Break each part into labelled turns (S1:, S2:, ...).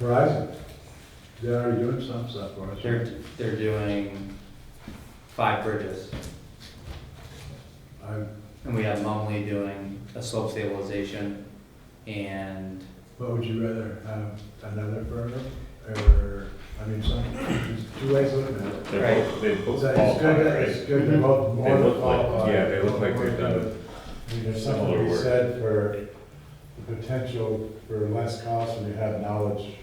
S1: Verizon, they are doing some stuff for us.
S2: They're, they're doing five bridges,
S1: I,
S2: and we have Mumley doing a slope stabilization, and
S1: what would you rather, have another firm, or, I mean, some, there's two ways of looking at it.
S3: They're both, they both
S1: So it's good,
S3: qualify,
S1: that- it's
S3: right?
S1: good to both, more
S3: They
S1: than
S3: look like-
S1: qualify.
S3: yeah, they look like they've done
S1: I mean, There's something to be
S3: similar work.
S1: said for the potential for less cost when you have knowledge,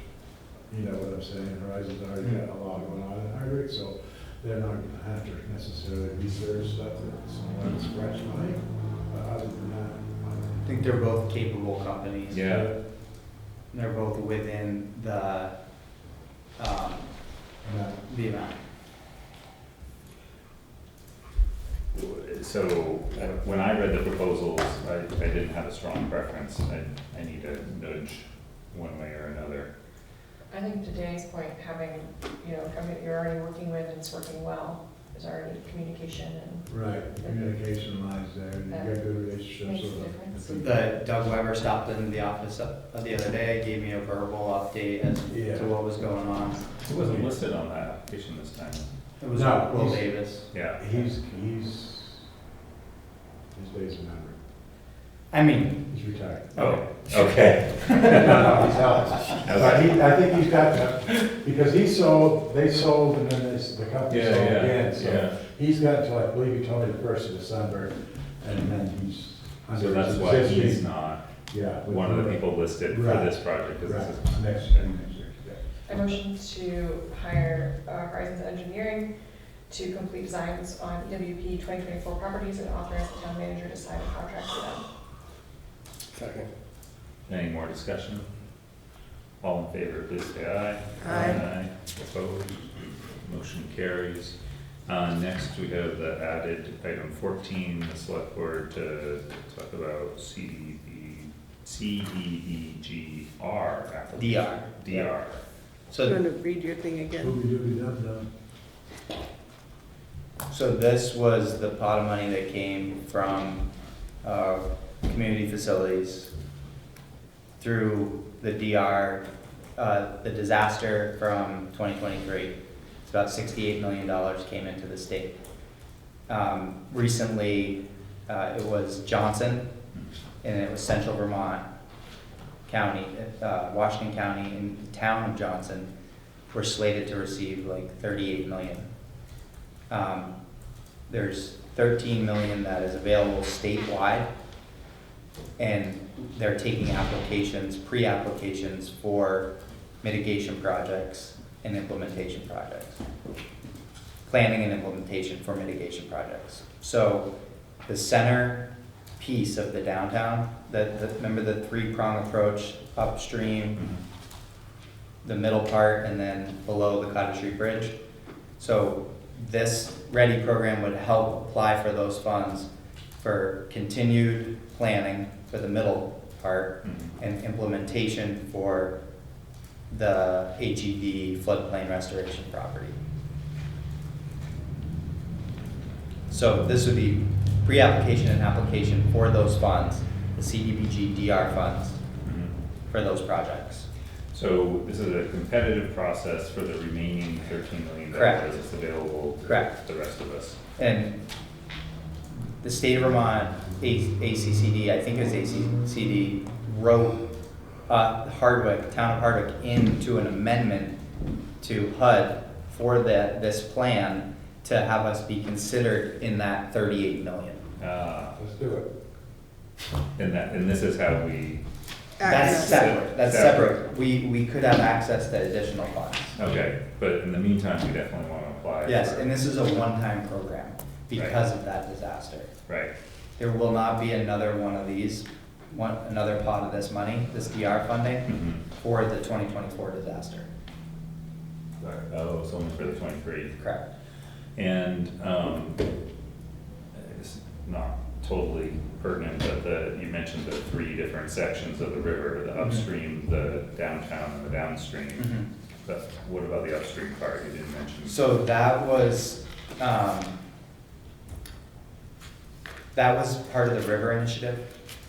S1: you know what I'm saying, Horizon's already got a lot going on in Hardwick, so they're not gonna have to necessarily research stuff that's someone's fresh money, but other than that.
S2: I
S1: I
S2: think they're both capable companies.
S3: Yeah.
S2: And They're both within the, um,
S1: Yeah.
S2: the amount.
S3: So uh, when I read the proposals, I, I didn't have a strong preference. I, I need a nudge one way or another.
S4: I think to Danny's point, having, you know, company that you're already working with and it's working well, there's already communication and,
S1: Right, communication lies there, and you got good relationships
S4: Makes a
S1: with them.
S4: difference.
S2: The Doug Weber stopped in the office up- uh, the other day, gave me a verbal update as
S1: Yeah.
S2: to what was going on.
S3: It wasn't listed on that application this time.
S2: It was
S1: No,
S2: Will
S1: he's-
S2: Davis.
S3: Yeah.
S1: He's, he's, his days are numbered,
S2: I mean,
S1: he's retired.
S3: Oh, okay.
S1: No, no, he's out. But he, I think he's got that, because he sold, they sold and then this, the company sold again, so. He's got until, I believe he told me the first of December, and then he's.
S3: So
S1: under
S3: that's
S1: his
S3: why
S1: existing-
S3: he's not
S1: Yeah. with
S3: one of the
S1: her.
S3: people listed for
S1: Right.
S3: this project, because
S1: Right,
S3: this is.
S1: next year, next year, yeah.
S4: I motion to hire uh, Horizons Engineering to complete designs on EWP twenty twenty-four properties and authorize the town manager to sign a contract with them.
S5: Second.
S3: Any more discussion? All in favor, please say aye.
S5: Aye.
S3: Opposed? Motion carries. Uh, next, we have the added item fourteen, the select board to talk about E, CDB, CDBGR E application.
S2: DR.
S3: DR.
S2: So
S5: going to read your thing again.
S1: Ooby dooby dum dum.
S2: So this was the pot of money that came from, uh, community facilities through the DR, uh, the disaster from twenty twenty-three. It's about sixty-eight million dollars came into the state. Um, recently, uh, it was Johnson, and it was Central Vermont County, uh, Washington County and the town of Johnson were slated to receive like thirty-eight million. Um, There's thirteen million that is available statewide, and they're taking applications, pre-applications for mitigation projects and implementation projects. Planning and implementation for mitigation projects. So the center piece of the downtown, that, that- remember the three-prong approach upstream,
S3: Mhm.
S2: the middle part and then below the Cottage Street Bridge. So this READY program would help apply for those funds for continued planning for the middle part
S3: Mhm.
S2: and implementation for the HED floodplain restoration property. So this would be pre-application and application for those funds, the CDBG DR funds
S3: Mhm.
S2: for those projects.
S3: So this is a competitive process for the remaining thirteen million
S2: Correct.
S3: dollars that's available to
S2: Correct.
S3: the rest of us.
S2: And the state of Vermont, A- ACCD, I think it was ACCD, wrote uh, Hardwick, Town of Hardwick, into an amendment to HUD for the, this plan to have us be considered in that thirty-eight million.
S3: Uh,
S1: Let's do it.
S3: and that, and this is how we,
S2: That's
S3: Access.
S2: separate, that's
S3: Separate.
S2: separate. We, we could have access to additional funds.
S3: okay, but in the meantime, we definitely wanna apply.
S2: Yes,
S3: for-
S2: and this is a one-time program because of that disaster.
S3: Right.
S2: There will not be another one of these, one, another pot of this money, this DR funding,
S3: Mhm.
S2: for the twenty twenty-four disaster.
S3: Oh, it's only for the twenty-three.
S2: Correct.
S3: And, um, it's not totally pertinent, but the, you mentioned the three different sections of the river, the
S2: Mhm.
S3: upstream, the downtown, and the downstream.
S2: Mhm.
S3: But what about the upstream part you didn't mention?
S2: So that was, um, that was part of the river initiative.